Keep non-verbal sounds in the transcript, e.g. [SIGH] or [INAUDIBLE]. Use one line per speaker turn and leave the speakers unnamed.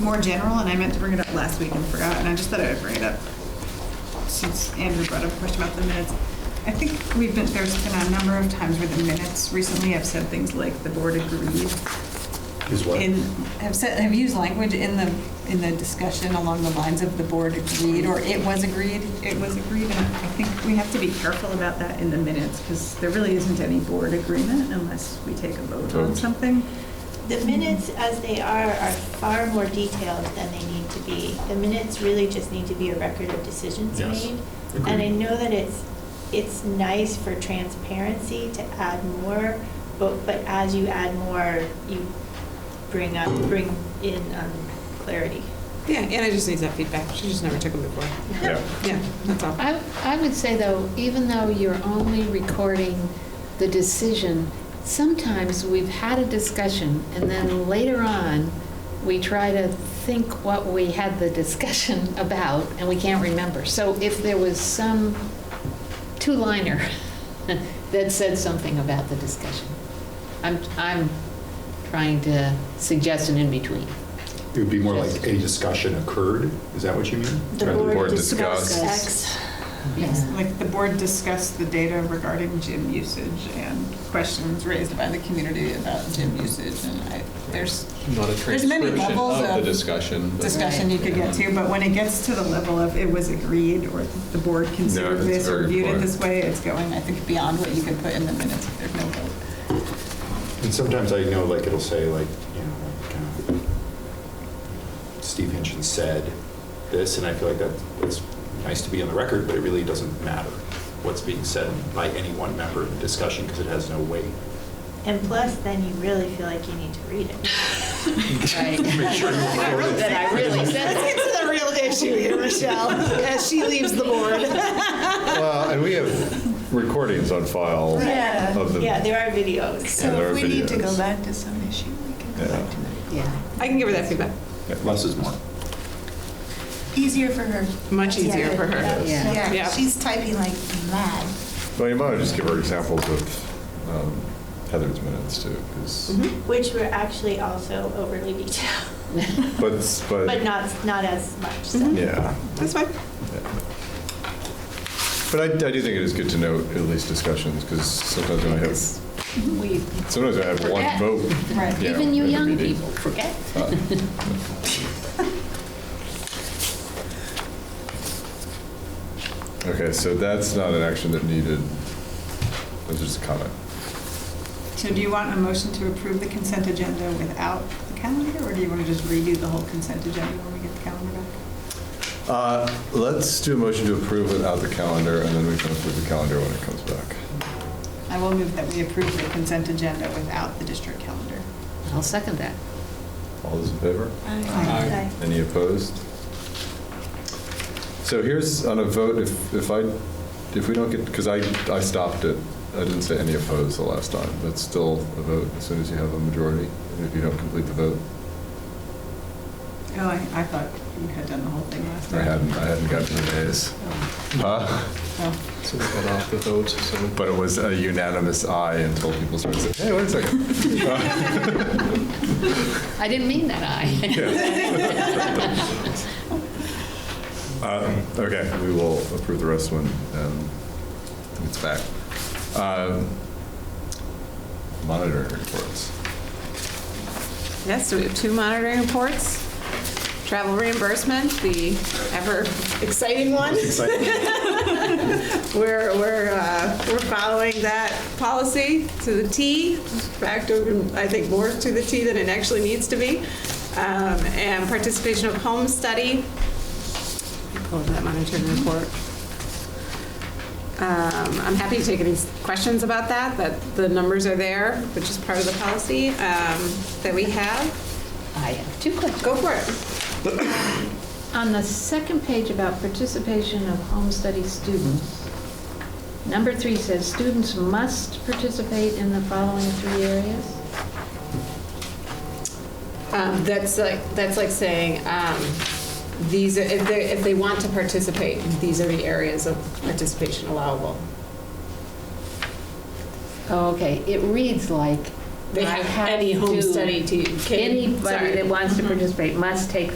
more general, and I meant to bring it up last week and forgot, and I just thought I would bring it up since Andrew brought up a question about the minutes. I think we've been, there's been a number of times where the minutes recently have said things like the board agreed
Is what?
in, have said, have used language in the, in the discussion along the lines of the board agreed, or it was agreed, it was agreed, and I think we have to be careful about that in the minutes, because there really isn't any board agreement unless we take a vote on
Vote.
something.
The minutes as they are are far more detailed than they need to be. The minutes really just need to be a record of decisions
Yes,
made. And I
agreed.
know that it's, it's nice for transparency to add more, but, but as you add more, you bring up, bring in um, clarity.
Yeah, Anna just needs that feedback. She just never took them before.
[LAUGHS]
Yeah.
Yeah, that's all.
I, I would say though, even though you're only recording the decision, sometimes we've had a discussion and then later on, we try to think what we had the discussion [LAUGHS] about and we can't remember. So if there was some two-liner [LAUGHS] that said something about the discussion, I'm, I'm trying to suggest an in-between.
It would be more like a discussion occurred, is that what you mean?
The
Right, the
board
board
discussed
discussed.
X.
Yes,
Yeah.
like the board discussed the data regarding gym usage and questions raised by the community about gym usage, and I, there's
Not a
There's many
transcription
levels
of the
of
discussion. but-
discussion you could get to, but when it gets to the level of it was agreed, or the board considered
it's
this, or
very
viewed it
important.
this way, it's going, I think, beyond what you could put in the minutes if there's no vote.
And sometimes I know, like, it'll say, like, you know, like, uh, Steve Hinchins said this, and I feel like that, that's nice to be on the record, but it really doesn't matter what's being said by any one member in the discussion, because it has no weight.
And plus, then you really feel like you need to read it.
Make sure you record it.
That [LAUGHS] I really said
Let's get to the real issue
[LAUGHS]
here, Michelle, as she leaves the board.
[LAUGHS] Well, and we have recordings on file of the.
Yeah, there are videos.
and there are videos.
back to some issue, we can
go back to
yeah.
I can give her that feedback.
[LAUGHS] Less is more.
Easier for her.
Much easier for her.
Yeah.
Yeah.
Yeah, she's typing like mad.
Well, you might just give her examples of um, Heather's minutes too, because,
Which were actually also overly detailed,
but,
but
but,
not, not as much, so.
yeah.
That's fine.
But I, I do think it is good to note at least discussions, because sometimes when I have,
We
sometimes I have one
Forget.
vote.
Right.
yeah,
Even you
at a
young
meeting.
people forget.
Okay, so that's not an action that needed, that's just a comment.
So do you want a motion to approve the consent agenda without the calendar, or do you want to just redo the whole consent agenda when we get the calendar back?
Uh, Let's do a motion to approve without the calendar, and then we can approve the calendar when it comes back.
I will move that we approve the consent agenda without the district calendar.
I'll second that.
All those in favor?
Aye.
Any opposed? So here's on a vote, if, if I, if we don't get, because I, I stopped it. I didn't say any opposed the last time. That's still a vote as soon as you have a majority, and if you don't complete the vote.
Oh, I, I thought you had done the whole thing last
I
time.
hadn't, I hadn't gotten the days. Huh?
Oh.
So we got off the vote, so.
But it was a unanimous aye until people started saying, hey, wait a second.
I didn't mean that I.
[LAUGHS] Um, Okay, we will approve the rest when um, it's back. Um, Monitoring reports.
Yes, so we have two monitoring reports. Travel reimbursement, the ever exciting one. [LAUGHS] We're, we're, uh, we're following that policy to the T, back to, I think, more to the T than it actually needs to be. Um, And participation of home study. Pull up that monitoring report. Um, I'm happy to take any questions about that, that the numbers are there, which is part of the policy um, that we have.
[LAUGHS] I have two questions.
Go for it.
On the second page about participation of home study students, number three says, "Students must participate in the following three areas."
Um, That's like, that's like saying, um, these, are- if they, if they want to participate, these are the areas of participation allowable.
Oh, okay, it reads like
They
I
have
have
any home
to-
study to, kid-
Anybody
sorry.
Mm-hmm. that wants to participate must take